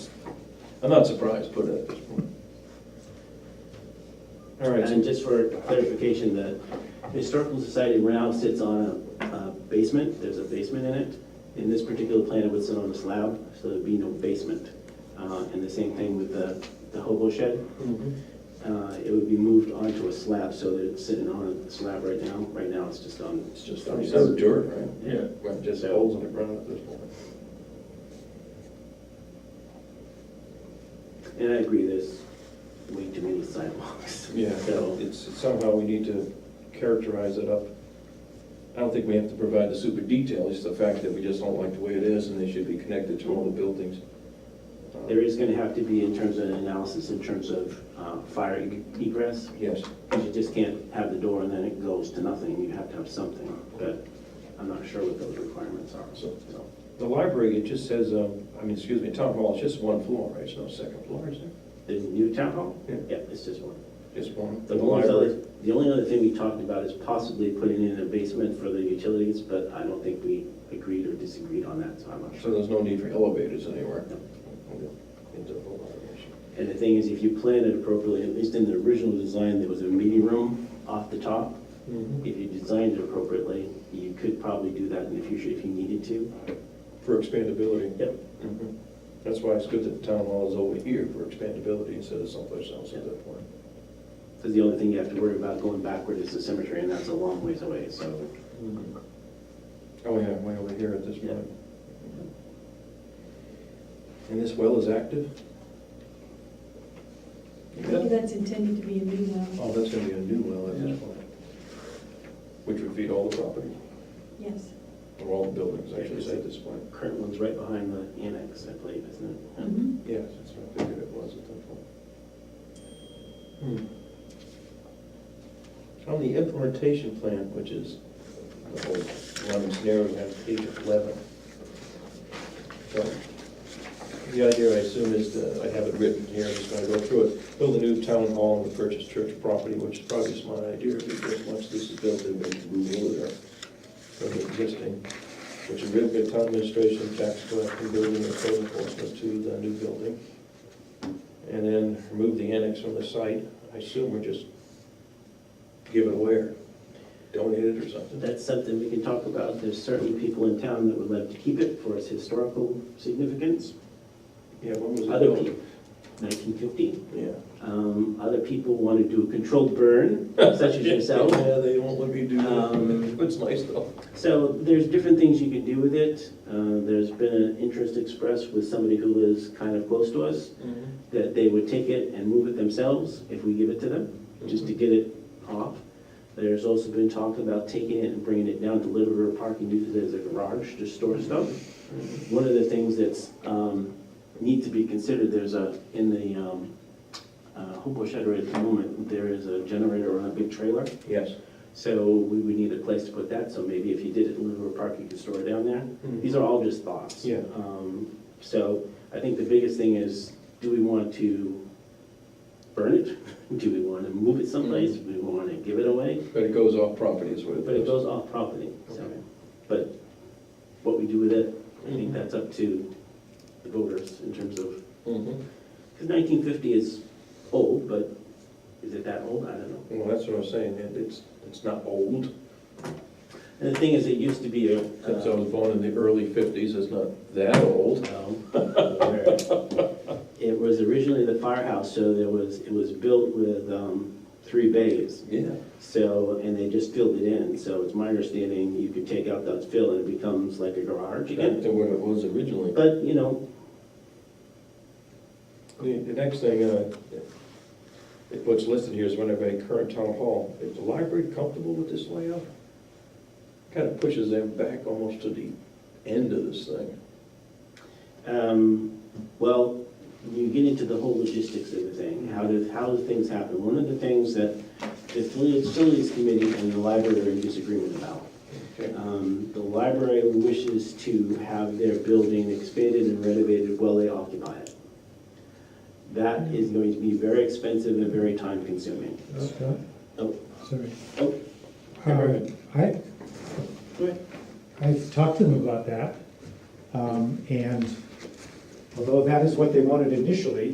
I'm not surprised, put it at this point. All right, And so, just for clarification, the Historical Society now sits on a a basement, there's a basement in it. In this particular plan, it would sit on a slab, so there'd be no basement. Uh, And the same thing with the the hobo shed, Mhm. Uh, it would be moved onto a slab, so that it's sitting on a slab right now. Right now, it's just on, it's just, I mean, it's dirt, right? Yeah. Right, Just holes in the ground at this point. and I agree, there's way too many sidewalks. Yeah, So, it's, somehow we need to characterize it up. I don't think we have to provide the super detail, it's the fact that we just don't like the way it is, and they should be connected to all the buildings. Uh, there is gonna have to be in terms of analysis, in terms of uh, fire egress, Yes, Because you just can't have the door and then it goes to nothing, you have to have something, but I'm not sure what those requirements are, so. so. the library, it just says, um, I mean, excuse me, town hall, it's just one floor, right, it's no second floor, is there? The new town hall? Yeah. it's just one. Just one? The only other, the only other thing we talked about is possibly putting in a basement for the utilities, but I don't think we agreed or disagreed on that, so I'm not sure. So there's no need for elevators anywhere? No. Okay. Into the library. And the thing is, if you plan it appropriately, at least in the original design, there was a meeting room off the top. Mm-hmm. If you designed it appropriately, you could probably do that in the future if you needed to. For expandability? Yep. Mhm. That's why it's good that the town hall is over here for expandability instead of someplace else at that point. Because the only thing you have to worry about going backward is the cemetery, and that's a long ways away, so. Oh, yeah, way over here at this Yeah. point. And this well is active? Oh, That's intended to be a new well, that's gonna be a new well at this point. Which would feed all the property, yes. or all the buildings, I should say, at this point. Current one's right behind the annex, I believe, isn't it? Mhm. Yes, that's what I figured it was at that point. Hmm. On the implementation plan, which is the whole running scenario, we have page eleven. So, The idea, I assume, is that, I have it written here, I'm just gonna go through it, build a new town hall and purchase church property, which is probably a smart idea, because once this is built, they're going to remove it from the existing, which would give the town administration, tax collector, building, and code enforcement to the new building. And then remove the annex from the site, I assume we're just give it away, or donate it or something. That's something we can talk about. There's certainly people in town that would love to keep it for its historical significance. Yeah, when was it Other built? people, 1950. Yeah. Um, Other people want to do a controlled burn, such as yourself. Yeah, they won't let me do Um, that. It's nice though. So there's different things you can do with it. Uh, There's been an interest expressed with somebody who is kind of close to us, Mm-hmm. that they would take it and move it themselves if we give it to them, just to get it off. There's also been talk about taking it and bringing it down to Liberty Park and use it as a garage to store stuff. One of the things that's, um, need to be considered, there's a, in the, um, uh, hobo shed right at the moment, there is a generator on a big trailer. Yes. So we would need a place to put that, so maybe if you did it in Liberty Park, you could store it down there. Mm-hmm. These are all just thoughts. Yeah. Um, So I think the biggest thing is, do we want to burn it? Do we want to move it someplace? Do we want to give it away? But it goes off property is what it But it does. goes off property, so. Okay. But what we do with it, I Mhm. think that's up to the voters in terms of, Mhm. because 1950 is old, but is it that old? I don't know. Well, that's what I'm saying, it- it's, it's not old. And the thing is, it used to be a. Since uh, I was born in the early fifties, it's not that old. Well, It was originally the firehouse, so there was, it was built with um, three bays. Yeah. So, and they just filled it in, so it's my understanding you could take out that fill and it becomes like a garage Back again. to what it was originally. But, you know, The, the next thing, uh, it- what's listed here is one of a current town hall. Is the library comfortable with this layout? Kind of pushes them back almost to the end of this thing. Um, Well, you get into the whole logistics of the thing, how do, how do things happen? One of the things that the facilities committee and the library are in disagreement about. Okay. Um, The library wishes to have their building expanded and renovated while they occupy it. That is going to be very expensive and very time consuming. Scott, Oh, sorry. oh, Uh, I, go ahead. I talked to them about that, um, and although that is what they wanted initially,